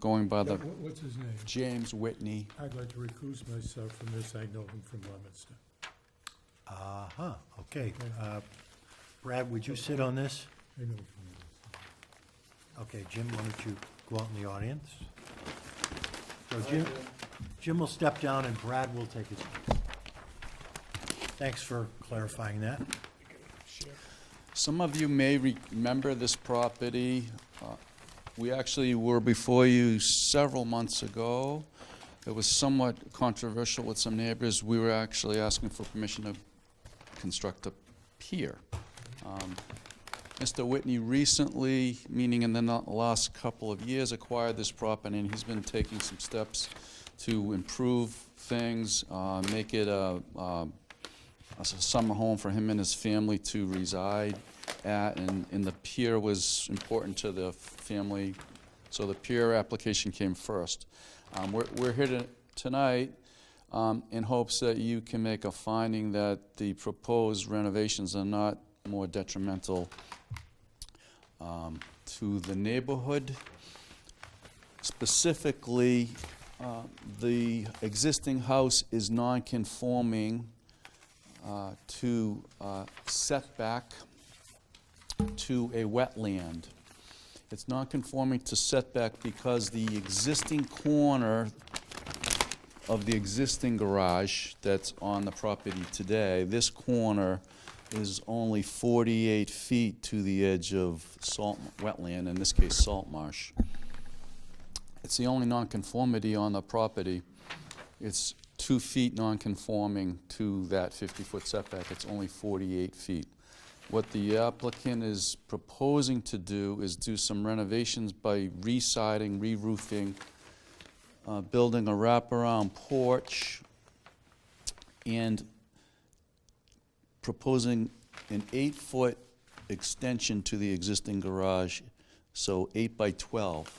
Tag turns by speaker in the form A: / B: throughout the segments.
A: going by
B: Yeah,
A: the
B: wh- What's his name?
A: James Whitney.
B: I'd like to recuse myself from this. I know him from Leominster.
C: Uh-huh, okay. Uh, Brad, would you sit on this?
B: I know him from Leominster.
C: Okay, Jim, why don't you go out in the audience? So Jim, Jim will step down and Brad will take his place. Thanks for clarifying that.
A: Some of you may re- remember this property. Uh, We actually were before you several months ago. It was somewhat controversial with some neighbors. We were actually asking for permission to construct a pier. Um, Mr. Whitney recently, meaning in the no- last couple of years, acquired this property, and he's been taking some steps to improve things, uh, make it a um, a s- summer home for him and his family to reside at, and, and the pier was important to the family, so the pier application came first. Um, we're, we're here to, tonight, um, in hopes that you can make a finding that the proposed renovations are not more detrimental, um, to the neighborhood. Specifically, uh, the existing house is non-conforming, uh, to uh, setback to a wetland. It's not conforming to setback because the existing corner of the existing garage that's on the property today, this corner is only 48 feet to the edge of salt, wetland, in this case, salt marsh. It's the only nonconformity on the property. It's two feet nonconforming to that 50-foot setback. It's only 48 feet. What the applicant is proposing to do is do some renovations by re-siding, re-roofing, uh, building a wraparound porch, and proposing an eight-foot extension to the existing garage, so eight by 12.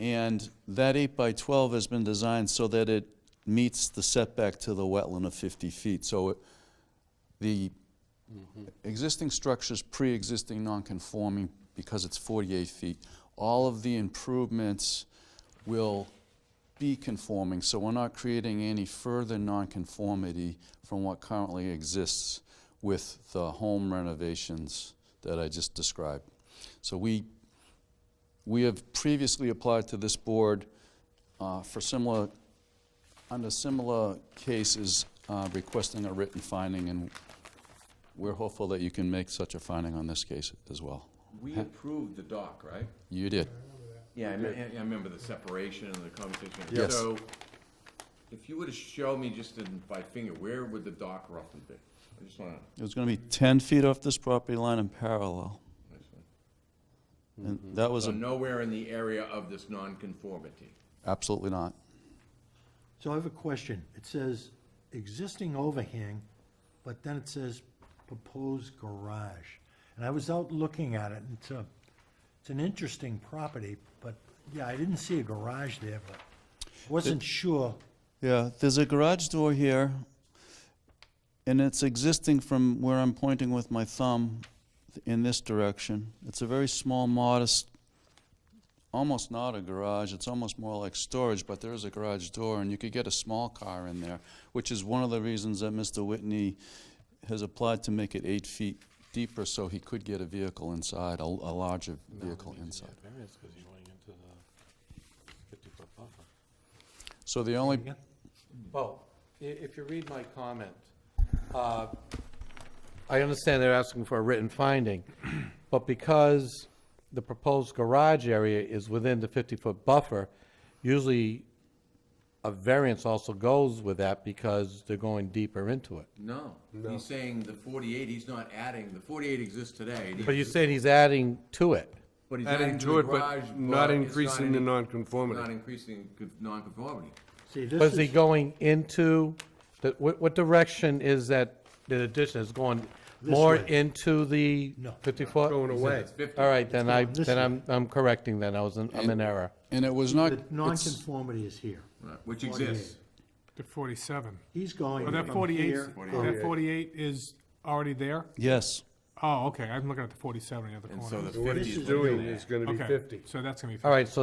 A: And that eight by 12 has been designed so that it meets the setback to the wetland of 50 feet. So it- the existing structure's pre-existing non-conforming because it's 48 feet. All of the improvements will be conforming, so we're not creating any further nonconformity from what currently exists with the home renovations that I just described. So we we have previously applied to this board uh, for similar, under similar cases, uh, requesting a written finding, and we're hopeful that you can make such a finding on this case as well.
D: We approved the dock, right?
A: You did.
D: Yeah, I remember the separation and the conversation.
A: Yes.
D: So, if you were to show me just in, by finger, where would the dock roughly be? I just wanna,
A: It was going to be 10 feet off this property line in parallel, and that was
D: so
A: a-
D: nowhere in the area of this nonconformity.
A: absolutely not.
C: So I have a question. It says existing overhang, but then it says proposed garage. And I was out looking at it, and it's a, it's an interesting property, but, yeah, I didn't see a garage there, but wasn't sure.
A: Yeah, there's a garage door here, and it's existing from where I'm pointing with my thumb in this direction. It's a very small, modest, almost not a garage, it's almost more like storage, but there is a garage door, and you could get a small car in there, which is one of the reasons that Mr. Whitney has applied to make it eight feet deeper, so he could get a vehicle inside, a, a larger vehicle inside.
E: Variance because you're going into the fifty-foot buffer.
A: So the only,
C: Again?
E: Well, i- if you read my comment, uh, I understand they're asking for a written finding, but because the proposed garage area is within the fifty-foot buffer, usually a variance also goes with that because they're going deeper into it.
D: No, he's saying the forty-eight, he's not adding, the forty-eight exists today.
E: But you're saying he's adding to it.
D: But he's
F: Adding to
D: the
F: it,
D: garage,
F: but not
D: it's
F: increasing the
D: any- Not
F: nonconformity.
D: increasing con- nonconformity.
C: See,
E: But
C: this
E: is he
C: is,
E: going into, the- what, what direction is that, the addition is going more
C: way.
E: into the
C: No.
E: 50-foot?
F: Going away.
D: It's fifty.
E: All right, then I,
C: this
E: then I'm, I'm correcting then, I was, in- I'm in error.
A: and it was not,
C: the
A: it's-
C: nonconformity is here.
D: right, Which exists.
G: To 47.
C: He's going
F: Oh,
G: But that
C: from
G: 48,
C: here.
G: 's- that 48 is already there?
A: yes,
F: Oh, okay, I'm looking at the forty-seven on the other
H: And so
F: corner.
H: the fifty is.
B: What
H: what
B: he's
H: it is.
B: doing is gonna be
F: Okay,
B: fifty.
F: So that's gonna be.
E: All right, so